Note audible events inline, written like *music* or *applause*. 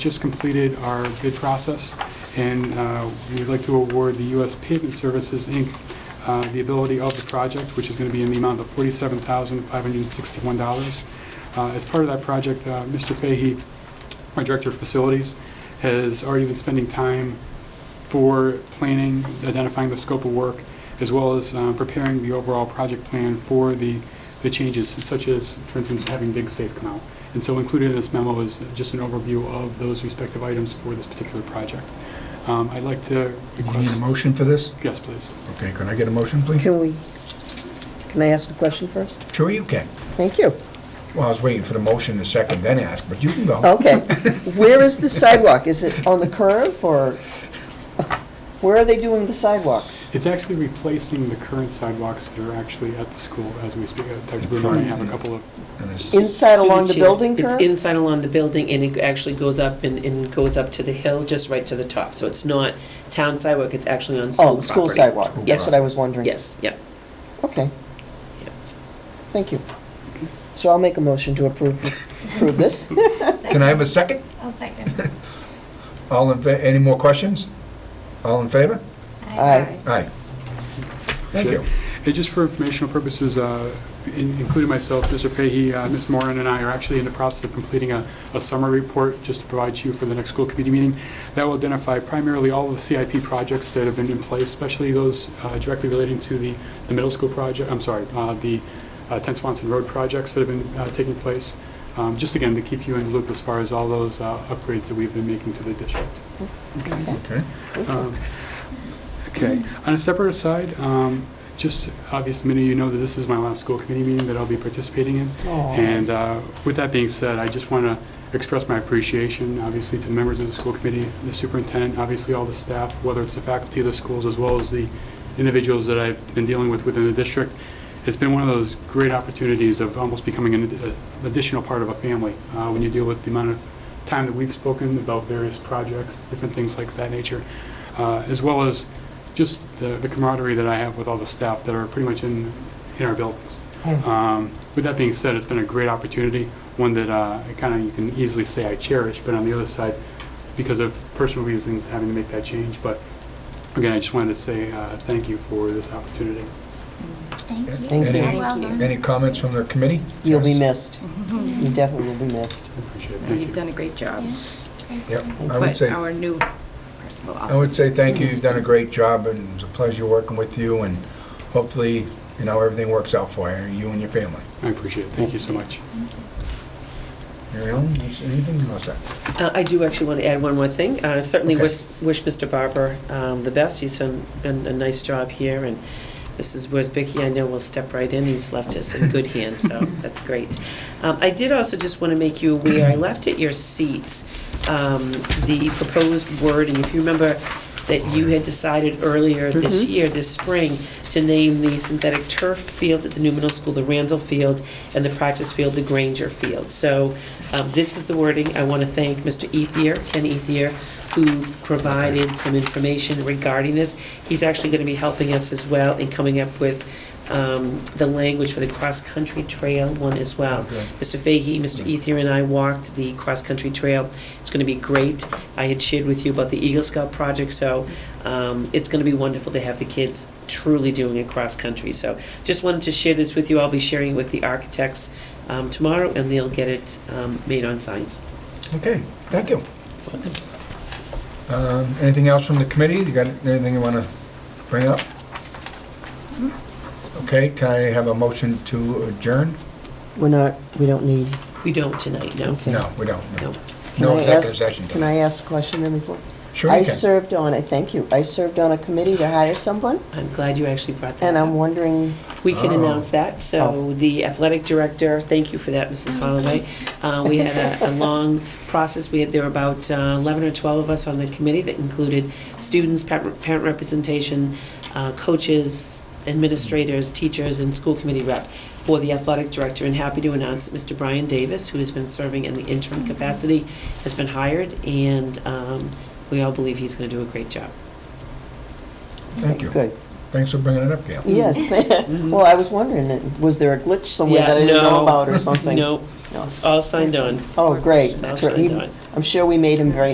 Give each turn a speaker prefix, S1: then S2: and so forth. S1: just completed our bid process, and uh, we'd like to award the U.S. Pavement Services, Inc., uh, the ability of the project, which is going to be in the amount of $47,561. Uh, As part of that project, uh, Mr. Fahey, our Director of Facilities, has already been spending time for planning, identifying the scope of work, as well as uh, preparing the overall project plan for the, the changes, such as, for instance, having Big Safe come out. And so included in this memo is just an overview of those respective items for this particular project. Um, I'd like to
S2: You need a
S1: request,
S2: motion for this?
S1: yes, please.
S2: Okay, can I get a motion, please?
S3: Can we, can I ask a question first?
S2: Sure you can.
S3: Thank you.
S2: Well, I was waiting for the motion to second, then ask, but you can go.
S3: Okay. Where is the sidewalk? Is it on the curve or where are they doing the sidewalk?
S1: It's actually replacing the current sidewalks that are actually at the school as we speak. Uh, Dr. Bruno and I have a couple of,
S2: And it's-
S3: Inside
S4: Through
S3: along the
S4: chair.
S3: building
S4: It's
S3: curve?
S4: inside along the building, and it actually goes up and, and goes up to the hill, just right to the top. So it's not town sidewalk, it's actually on school
S3: Oh,
S4: property.
S3: the school sidewalk.
S2: School
S3: That's what I was wondering.
S4: Yes, yep.
S3: Okay.
S4: Yeah.
S3: Thank you. So I'll make a motion to approve, approve this.
S2: Can I have a second?
S3: *laughs*
S5: I'll second.
S2: All in, fa- any more questions? All in favor?
S3: Aye.
S2: Aye. Thank you.
S1: And just for informational purposes, uh, in- including myself, Mr. Fahey, uh, Ms. Moran, and I are actually in the process of completing a a summary report just to provide to you for the next school committee meeting. That will identify primarily all of the CIP projects that have been in place, especially those uh, directly relating to the the middle school project, I'm sorry, uh, the uh, 10 Swanson Road projects that have been uh, taking place. Um, Just again, to keep you in the loop as far as all those uh, upgrades that we've been making to the district.
S2: Okay.
S1: Um, Okay. On a separate aside, um, just obvious, many of you know that this is my last school committee meeting that I'll be participating in.
S3: Aw.
S1: And uh, with that being said, I just want to express my appreciation, obviously, to the members of the school committee, the superintendent, obviously, all the staff, whether it's the faculty of the schools, as well as the individuals that I've been dealing with within the district. It's been one of those great opportunities of almost becoming an ad- uh, additional part of a family uh, when you deal with the amount of time that we've spoken about various projects, different things like that nature, uh, as well as just the the camaraderie that I have with all the staff that are pretty much in in our buildings. Um, With that being said, it's been a great opportunity, one that uh, I kind of, you can easily say I cherish, but on the other side, because of personal reasons, having to make that change. But again, I just wanted to say uh, thank you for this opportunity.
S5: Thank you.
S3: Thank
S2: Any-
S5: You're
S3: you.
S5: welcome. *laughs*
S2: Any comments from the committee?
S3: You'll be
S2: Yes.
S3: missed. You definitely will be missed.
S1: I appreciate it.
S6: No,
S1: Thank
S6: You've
S1: you.
S6: done a great job.
S2: Yep, I would
S6: But
S2: say,
S6: our new person will
S2: I
S6: also.
S2: would say thank you, you've done a great job, and it's a pleasure working with you, and hopefully, you know, everything works out for you, you and your family.
S1: I appreciate it. Thank you so much.
S2: Mary Ellen, is anything else?
S4: Uh, I do actually want to add one more thing. Uh, Certainly
S2: Okay.
S4: wish wish Mr. Barber um, the best. He's done done a nice job here, and Mrs. Worsbicky, I know, will step right in. He's left us in good hands, so that's great. Um, I did also just want to make you aware, I left at your seats um, the proposed wording. If you remember that you had decided earlier this
S3: Mhm.
S4: year, this spring, to name the synthetic turf field at the new middle school, the Randall Field, and the practice field, the Granger Field. So um, this is the wording. I want to thank Mr. Ethier, Ken Ethier, who provided some information regarding this. He's actually going to be helping us as well in coming up with um, the language for the cross-country trail one as well.
S2: Okay.
S4: Mr. Fahey, Mr. Ethier, and I walked the cross-country trail. It's going to be great. I had shared with you about the Eagle Scout project, so um, it's going to be wonderful to have the kids truly doing it cross-country. So just wanted to share this with you. I'll be sharing it with the architects um, tomorrow, and they'll get it um, made on signs.
S2: Okay, thank you. Um, Anything else from the committee? You got anything you want to bring up?
S3: Mm-hmm.
S2: Okay, can I have a motion to adjourn?
S3: We're not, we don't need,
S4: We don't tonight, no.
S3: Okay.
S2: No, we don't.
S4: No.
S3: Can I
S2: No
S3: ask-
S2: executive session.
S3: can I ask a question then before?
S2: Sure you
S3: I
S2: can.
S3: served on, I thank you, I served on a committee to hire someone,
S4: I'm glad you actually brought that
S3: and
S4: up.
S3: I'm wondering,
S4: We can
S2: Oh.
S4: announce that. So
S3: Oh.
S4: the athletic director, thank you for that, Mrs. Holloway. Uh, We had a- a long process. We had, there were about uh, 11 or 12 of us on the committee that included students, parent parent representation, uh, coaches, administrators, teachers, and school committee rep for the athletic director. And happy to announce that Mr. Brian Davis, who has been serving in the interim
S3: Mm-hmm.
S4: capacity, has been hired, and um, we all believe he's going to do a great job.
S2: Thank you.
S3: good,
S2: Thanks for bringing it up, Gail.
S3: Yes, *laughs* Mm-hmm. well, I was wondering, was there a glitch somewhere
S4: Yeah,
S3: that I didn't
S4: *laughs* no.
S3: know about or something?
S4: Nope,
S3: No.
S4: it's all signed on.
S3: Oh, great,
S4: It's all
S3: that's
S4: signed
S3: right.
S4: on.
S3: I'm sure we made him very